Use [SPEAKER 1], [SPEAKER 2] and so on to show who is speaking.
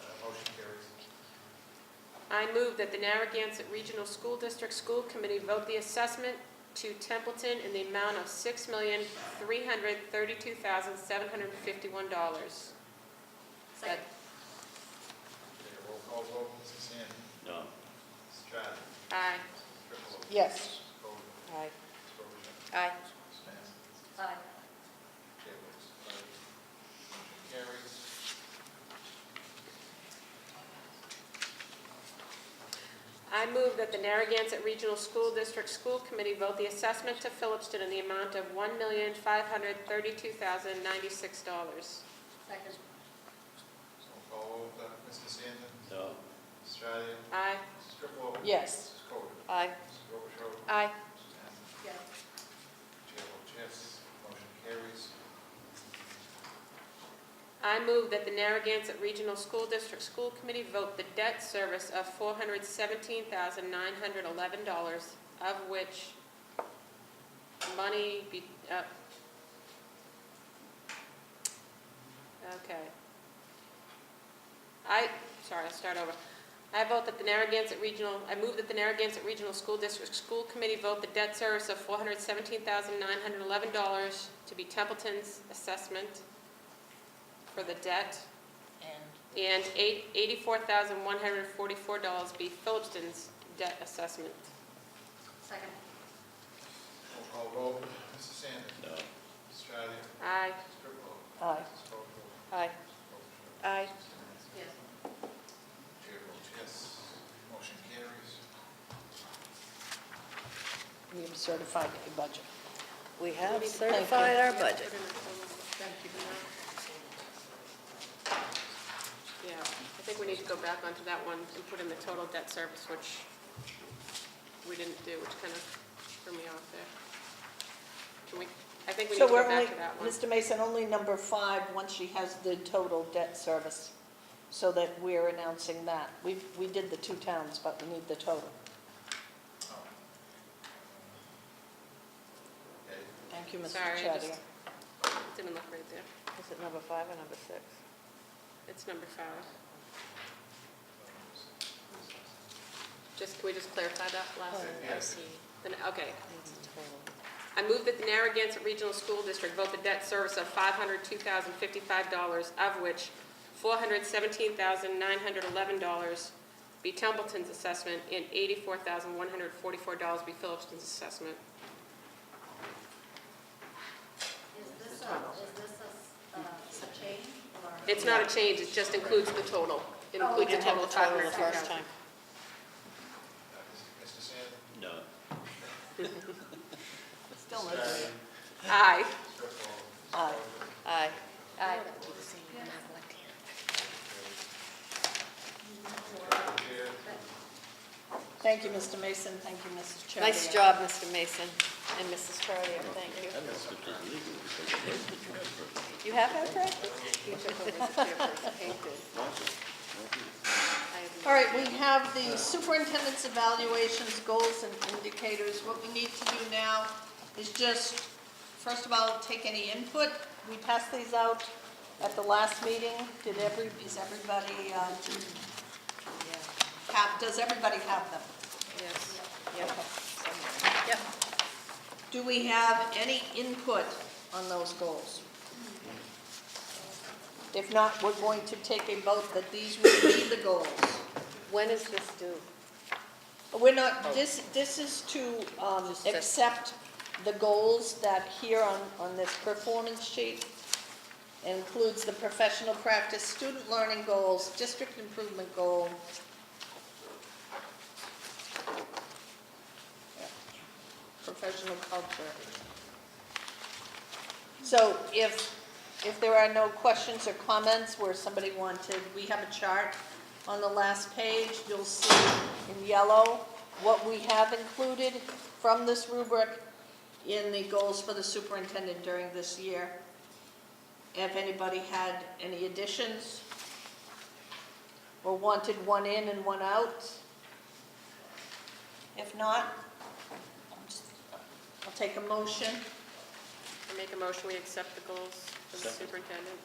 [SPEAKER 1] uh,
[SPEAKER 2] I move that the Narragansett Regional School District School Committee vote the assessment to Templeton in the amount of six million, three hundred thirty-two thousand, seven hundred fifty-one dollars.
[SPEAKER 3] Second.
[SPEAKER 1] Okay, roll call vote, Mrs. Sandy.
[SPEAKER 4] No.
[SPEAKER 1] Mrs. Stratton.
[SPEAKER 2] Aye.
[SPEAKER 1] Mrs. Triplowitz.
[SPEAKER 5] Yes.
[SPEAKER 1] Mrs. Bowden.
[SPEAKER 2] Aye.
[SPEAKER 1] Mrs. Bowery.
[SPEAKER 2] Aye.
[SPEAKER 1] Mrs. Massey.
[SPEAKER 3] Aye.
[SPEAKER 1] Okay, votes aye. Motion carries.
[SPEAKER 2] I move that the Narragansett Regional School District School Committee vote the assessment to Phillipston in the amount of one million, five hundred thirty-two thousand, ninety-six dollars.
[SPEAKER 3] Uh, Second.
[SPEAKER 1] Roll call vote, uh, Mrs. Sandy.
[SPEAKER 4] No.
[SPEAKER 1] Mrs. Stratton.
[SPEAKER 2] Aye.
[SPEAKER 1] Mrs. Triplowitz.
[SPEAKER 5] Yes.
[SPEAKER 1] Mrs. Bowden.
[SPEAKER 5] Aye.
[SPEAKER 1] Mrs. Robichaud.
[SPEAKER 2] Aye.
[SPEAKER 1] Mrs. Massey.
[SPEAKER 3] Yes.
[SPEAKER 1] Chair votes yes. Motion carries.
[SPEAKER 2] I move that the Narragansett Regional School District School Committee vote the debt service of four hundred seventeen thousand nine hundred eleven dollars, of which money be, uh, okay. I, sorry, I'll start over. I vote that the Narragansett Regional, I move that the Narragansett Regional School District School Committee vote the debt service of four hundred seventeen thousand nine hundred eleven dollars to be Templeton's assessment for the debt,
[SPEAKER 5] And
[SPEAKER 2] and eight- $84,144 be Phillipston's debt assessment.
[SPEAKER 3] Second.
[SPEAKER 1] Roll call vote, Mrs. Sandy.
[SPEAKER 4] No.
[SPEAKER 1] Mrs. Stratton.
[SPEAKER 2] Aye.
[SPEAKER 1] Mrs. Triplowitz.
[SPEAKER 5] Aye.
[SPEAKER 1] Mrs. Bowery.
[SPEAKER 2] Aye. Aye.
[SPEAKER 3] Yes.
[SPEAKER 1] Chair votes yes. Motion carries.
[SPEAKER 5] we have certified a budget.
[SPEAKER 6] We have certified our budget.
[SPEAKER 2] Yeah, I think we need to go back onto that one and put in the total debt service, which we didn't do, which kind of threw me off there. Can we, I think we need
[SPEAKER 5] So
[SPEAKER 2] to
[SPEAKER 5] we're
[SPEAKER 2] go
[SPEAKER 5] only,
[SPEAKER 2] back to that one.
[SPEAKER 5] Mr. Mason, only number five, once she has the total debt service, so that we're announcing that. We, we did the two towns, but we need the total.
[SPEAKER 1] Okay,
[SPEAKER 5] Thank you, Mr.
[SPEAKER 2] Sorry, I
[SPEAKER 5] Chadier.
[SPEAKER 2] just- Didn't look right there.
[SPEAKER 6] Is it number five or number six?
[SPEAKER 2] It's number five. Just, can we just clarify that last?
[SPEAKER 1] Yes.
[SPEAKER 2] Then, okay. I move that the Narragansett Regional School District vote the debt service of $502,055, of which $417,911 be Templeton's assessment and $84,144 be Phillipston's assessment.
[SPEAKER 3] Is this a, is this a, uh, a change or?
[SPEAKER 2] It's not a change, it just includes the total. It
[SPEAKER 3] Oh,
[SPEAKER 2] includes
[SPEAKER 3] we
[SPEAKER 2] a
[SPEAKER 3] didn't
[SPEAKER 2] total of $502,000.
[SPEAKER 1] uh, Mr. Sandy.
[SPEAKER 4] No.
[SPEAKER 5] Still
[SPEAKER 1] Mrs.
[SPEAKER 5] no
[SPEAKER 1] Stratton.
[SPEAKER 5] total.
[SPEAKER 1] Mrs.
[SPEAKER 2] Aye.
[SPEAKER 1] Triplowitz. Mrs.
[SPEAKER 5] Aye.
[SPEAKER 1] Bowery.
[SPEAKER 6] Aye.
[SPEAKER 2] Aye.
[SPEAKER 1] Chair,
[SPEAKER 5] Thank you, Mr. Mason, thank you, Mrs. Chadier.
[SPEAKER 6] Nice job, Mr. Mason and Mrs. Troyer, thank you.
[SPEAKER 4] That must have been legal because it was the transfer.
[SPEAKER 6] You have had practice?
[SPEAKER 3] He took over as the chairperson. He did.
[SPEAKER 5] All right, we have the superintendent's evaluations, goals, and indicators. What we need to do now is just, first of all, take any input. We passed these out at the last meeting. Did every, is everybody, uh, have, does everybody have them?
[SPEAKER 2] Yes.
[SPEAKER 6] Yep.
[SPEAKER 5] Do we have any input on those goals? If not, we're going to take a vote that these will be the goals.
[SPEAKER 6] When is this due? Oh.
[SPEAKER 5] We're not, this, this is to um,
[SPEAKER 6] Just to-
[SPEAKER 5] accept the goals that here on, on this performance sheet includes the professional practice, student learning goals, district improvement goal. Professional culture. So if, if there are no questions or comments where somebody wanted, we have a chart on the last page, you'll see in yellow what we have included from this rubric in the goals for the superintendent during this year. If anybody had any additions or wanted one in and one out. If not, I'll just- I'll take a motion.
[SPEAKER 2] I make a motion, we accept the goals from the
[SPEAKER 4] Second.
[SPEAKER 2] superintendent.